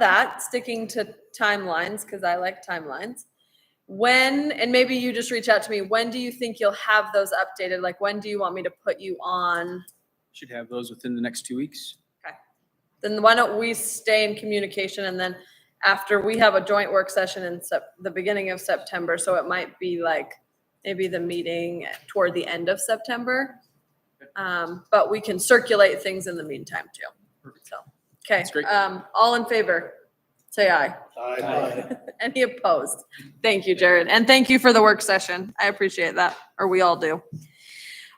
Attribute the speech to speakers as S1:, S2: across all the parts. S1: that, sticking to timelines, because I like timelines, when, and maybe you just reach out to me, when do you think you'll have those updated? Like, when do you want me to put you on?
S2: Should have those within the next two weeks.
S1: Then why don't we stay in communication and then after we have a joint work session in Sep- the beginning of September, so it might be like maybe the meeting toward the end of September. Um, but we can circulate things in the meantime too. So, okay,
S2: That's great.
S1: um, all in favor, say aye.
S2: Aye.
S1: Any opposed? Thank you, Jared. And thank you for the work session. I appreciate that, or we all do.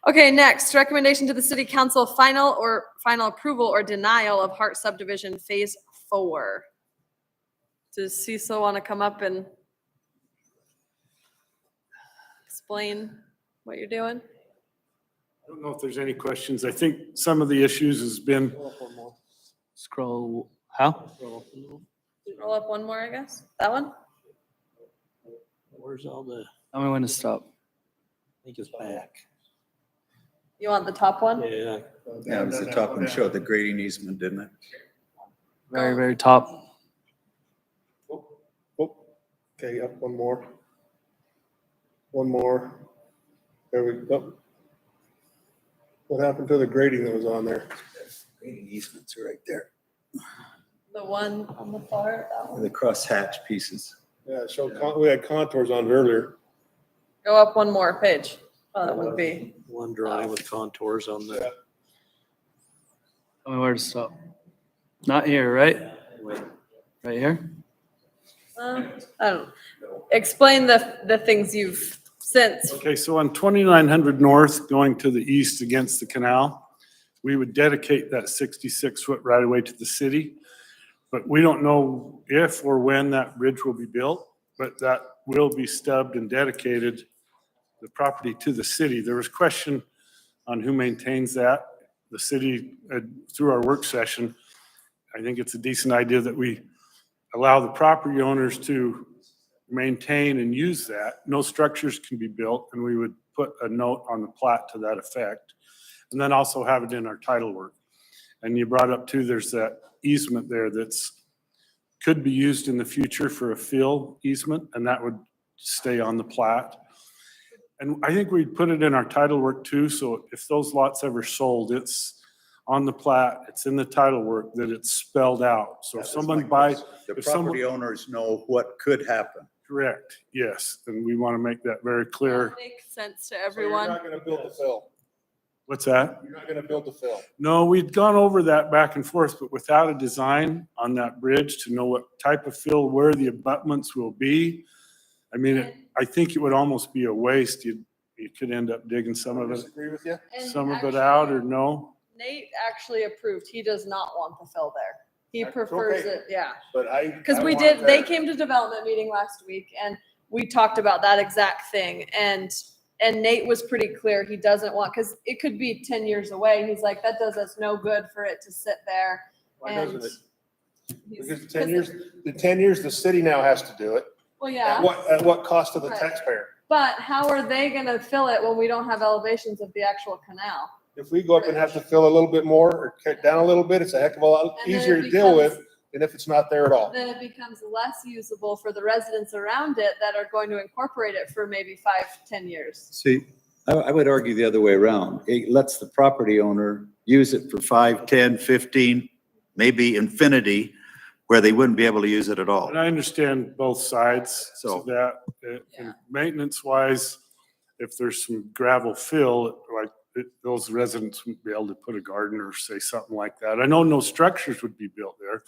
S1: Okay, next, recommendation to the city council, final or final approval or denial of Hart subdivision phase four. Does Cecil want to come up and explain what you're doing?
S3: I don't know if there's any questions. I think some of the issues has been,
S4: Scroll, how?
S1: Roll up one more, I guess. That one?
S5: Where's all the, I
S4: Tell me when to stop.
S5: think it's back.
S1: You want the top one?
S5: Yeah.
S6: Yeah, it was the top one showed the grading easement, didn't it?
S4: Very, very top.
S7: Oh, Okay, up one more. One more. There we go. What happened to the grading that was on there?
S6: Grading easements are right there,
S1: The one on the far, that one?
S6: the crosshatch pieces.
S7: Yeah, so we had contours on it earlier.
S1: Go up one more page. Oh, that wouldn't be.
S5: One drawing with contours on the.
S4: Tell me where to stop. Not here, right? Right here?
S1: Um, I don't, explain the, the things you've since,
S3: okay, so on twenty-nine hundred north going to the east against the canal, we would dedicate that sixty-six foot right away to the city. But we don't know if or when that bridge will be built, but that will be stubbed and dedicated the property to the city. There was question on who maintains that. The city, uh, through our work session, I think it's a decent idea that we allow the property owners to maintain and use that. No structures can be built, and we would put a note on the plat to that effect. And then also have it in our title work. And you brought up too, there's that easement there that's, could be used in the future for a fill easement, and that would stay on the plat. And I think we'd put it in our title work too, so if those lots ever sold, it's on the plat, it's in the title work, that it's spelled out. So if
S6: That was
S3: someone
S6: my
S3: buys,
S6: question. The
S3: if someone-
S6: property owners know what could happen.
S3: Correct, yes, and we want to make that very clear.
S1: makes sense to
S7: So You're
S1: everyone.
S7: not gonna build the fill.
S3: What's that?
S7: You're not gonna build the fill.
S3: No, we'd gone over that back and forth, but without a design on that bridge to know what type of fill, where the abutments will be. I mean, it- I think it would almost be a waste. You, you could end up digging some of it,
S7: Disagree with you?
S1: And
S3: some of it
S1: actually,
S3: out or no.
S1: Nate actually approved, he does not want the fill there. He
S7: That's
S1: prefers
S7: okay.
S1: it, yeah.
S7: But I.
S1: Because
S7: I
S1: we
S7: want
S1: did, they
S7: that.
S1: came to development meeting last week and we talked about that exact thing. And, and Nate was pretty clear, he doesn't want, because it could be ten years away. He's like, that does us no good for it to sit there.
S7: Why doesn't it?
S1: and he's-
S7: Because the ten years, the ten years, the city now has to do it.
S1: Well, yeah.
S7: At what, at what cost to the
S1: Right.
S7: taxpayer?
S1: But how are they gonna fill it when we don't have elevations of the actual canal?
S7: If we go up and have to fill a little bit more or cut down a little bit, it's a heck of a lot
S1: And then
S7: easier
S1: it
S7: to deal with
S1: becomes-
S7: than if it's not there at all.
S1: Then it becomes less usable for the residents around it that are going to incorporate it for maybe five, ten years.
S6: See, I, I would argue the other way around. It lets the property owner use it for five, ten, fifteen, maybe infinity, where they wouldn't be able to use it at all.
S3: And I understand both sides
S6: So-
S3: to that. uh, and Maintenance wise, if there's some gravel fill, like it- those residents wouldn't be able to put a garden or say something like that. I know no structures would be built there.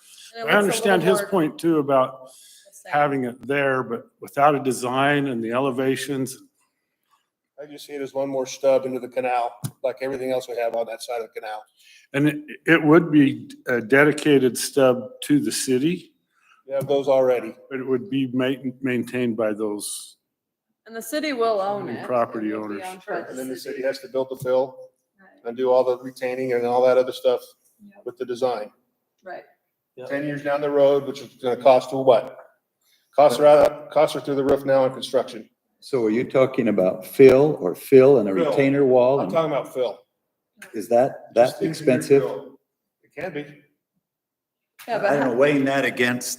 S3: I understand his point too about having it there, but without a design and the elevations,
S7: I just see it as one more stub into the canal, like everything else we have on that side of the canal.
S3: and it, it would be a dedicated stub to the city,
S7: We have those already.
S3: but it would be ma- maintained by those.
S1: And the city will own
S3: And
S1: it.
S3: property
S1: It will be
S3: owners.
S1: owned by
S7: And then the
S1: the
S7: city
S1: city.
S7: has to build the fill
S1: Right,
S7: and do all the retaining and all that other stuff
S1: Yep.
S7: with the design.
S1: Right.
S7: Ten years down the road, which is gonna cost her what? Costs her out, costs her through the roof now in construction.
S6: So are you talking about fill or fill and a
S7: Fill.
S6: retainer wall?
S7: I'm
S6: and-
S7: talking about fill.
S6: Is that, that
S7: Just into your
S6: expensive?
S7: fill. It can be.
S1: Yeah,
S6: I
S1: but
S6: don't know, weighing that against